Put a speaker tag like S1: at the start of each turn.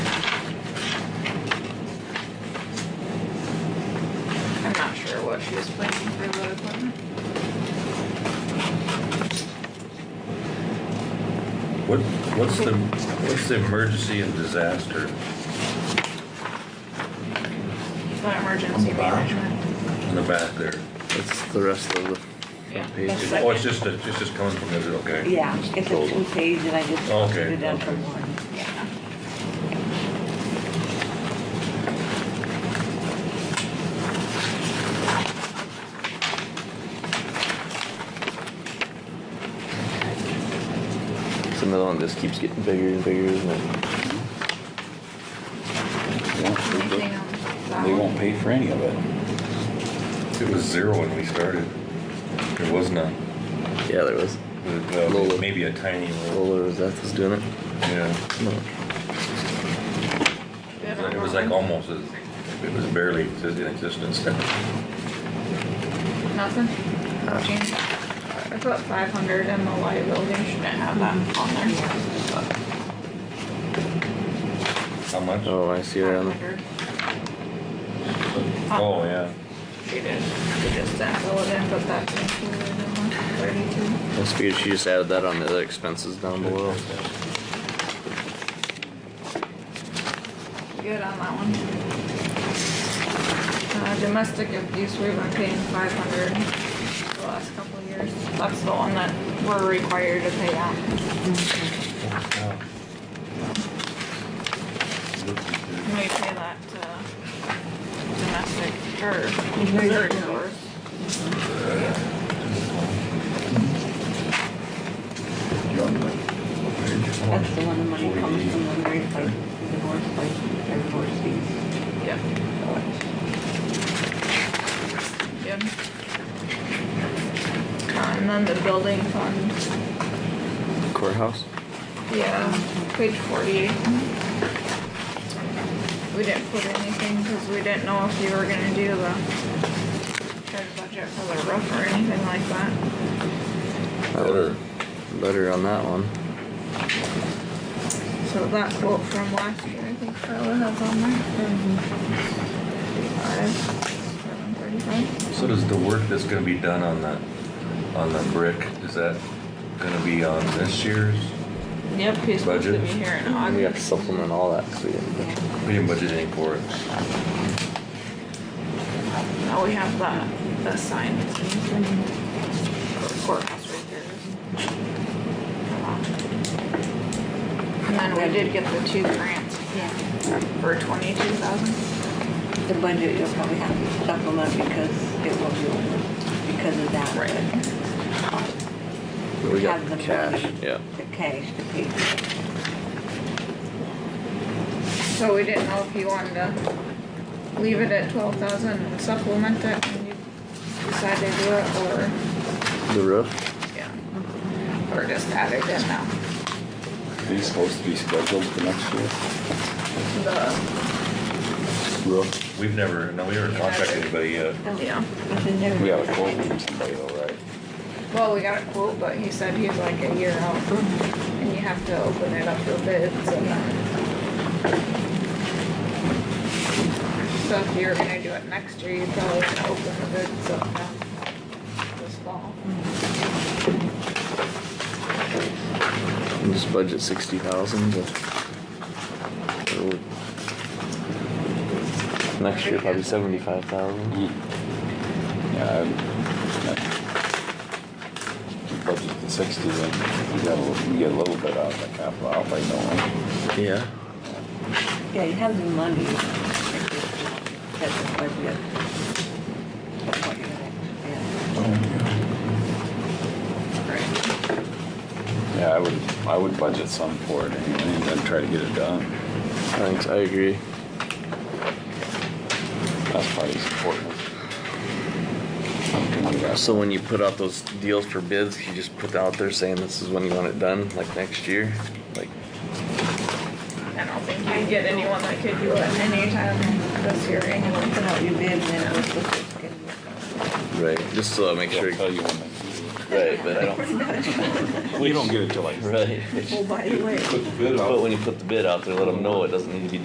S1: what she was placing for road equipment?
S2: What, what's the, what's the emergency and disaster?
S1: It's not emergency management.
S2: in the back there.
S3: That's the rest of the
S1: Yeah.
S3: front
S1: That's
S3: page.
S1: like-
S2: Oh, it's just, a- it's just coming from there, okay.
S4: Yeah, it's a two page and I just
S2: Okay,
S4: did that from
S2: okay.
S4: one.
S1: Yeah.
S3: It's another one that just keeps getting bigger and bigger, isn't it?
S1: Anything else?
S5: They won't pay for any of it.
S2: It was zero when we started. There was none.
S3: Yeah, there was.
S2: Well, Maybe a tiny little,
S3: Lola Rosette was doing it.
S2: yeah.
S3: No.
S1: We have
S2: It was like almost, as- it was barely exist- in existence.
S1: Nothing?
S2: Uh,
S1: Change. I put five hundred in the liability, shouldn't have that on there.
S2: How much?
S3: Oh, I see her on the.
S1: 500.
S2: Oh, yeah.
S1: She did, she just didn't fill it in, but that's included in the thirty-two.
S3: I figured she just added that on the other expenses down below.
S1: Good on that one. Uh, domestic abuse, we've been paying five hundred the last couple of years. That's the one that we're required to pay out. And we pay that, uh, domestic, or Missouri doors.
S4: That's the one the money comes from, the very place, divorce place, their divorce fees.
S1: Yep. Good. Uh, and then the building fund,
S3: Courthouse?
S1: yeah, page forty-eight. We didn't put anything, cause we didn't know if you were gonna do the try to budget for the roof or anything like that.
S3: That was better on that one.
S1: So that quote from last year, I think Carla has on there. Five, seven thirty-five.
S2: So does the work that's gonna be done on that, on the brick, is that gonna be on this year's?
S1: Yep, he's supposed to be
S2: Budget.
S1: here in
S3: And we have to
S1: August.
S3: supplement all that, cause we didn't.
S2: We didn't budget any for it.
S1: Now we have the, the sign. Courthouse right there. And then we did get the two grants
S4: Yeah,
S1: for twenty-two thousand.
S4: the budget you'll probably have to supplement because it will be over because of that.
S3: But we got
S4: Have
S3: the
S4: the
S3: cash,
S4: money.
S3: yeah.
S4: The cash to pay.
S1: So we didn't know if you wanted to leave it at twelve thousand and supplement it when you decide to do it, or,
S3: The roof?
S1: yeah. Or just add it in now.
S5: Are these supposed to be scheduled for next year?
S1: The,
S5: Roof?
S2: We've never, no, we never contacted anybody yet.
S4: Oh,
S1: yeah.
S4: It's in there.
S5: We have a quote from somebody though, right?
S1: Well, we got a quote, but he said he's like a year out, and you have to open it up for bids and then. So if you were gonna do it next year, you probably would open the bids up now, this fall.
S3: And Just budget sixty thousand, Next year probably seventy-five thousand.
S5: Hmm. Yeah. I- I- Budget the sixty, then you got a, little- you get a little bit out of the capital outlay, don't
S3: Yeah.
S4: Yeah, you have the money. That's the budget. That's what you're gonna-
S1: Right.
S5: we? Yeah, I would, I would budget some for it anyway, and then try to get it done.
S3: Thanks, I agree.
S5: That's probably important. Something like that.
S3: So when you put out those deals for bids, you just put out there saying this is when you want it done, like next year, like.
S1: I don't think you'd get anyone that could do it anytime this year
S4: yeah.
S1: anyway.
S4: Put out your bid and then we're supposed to get it.
S3: Right. Just so I make sure.
S5: They'll tell you when
S3: Right, but I don't.
S5: they. We don't get it till like
S3: Right.
S4: Oh, by the way.
S3: But when you put the bid out there, let them know it doesn't need to be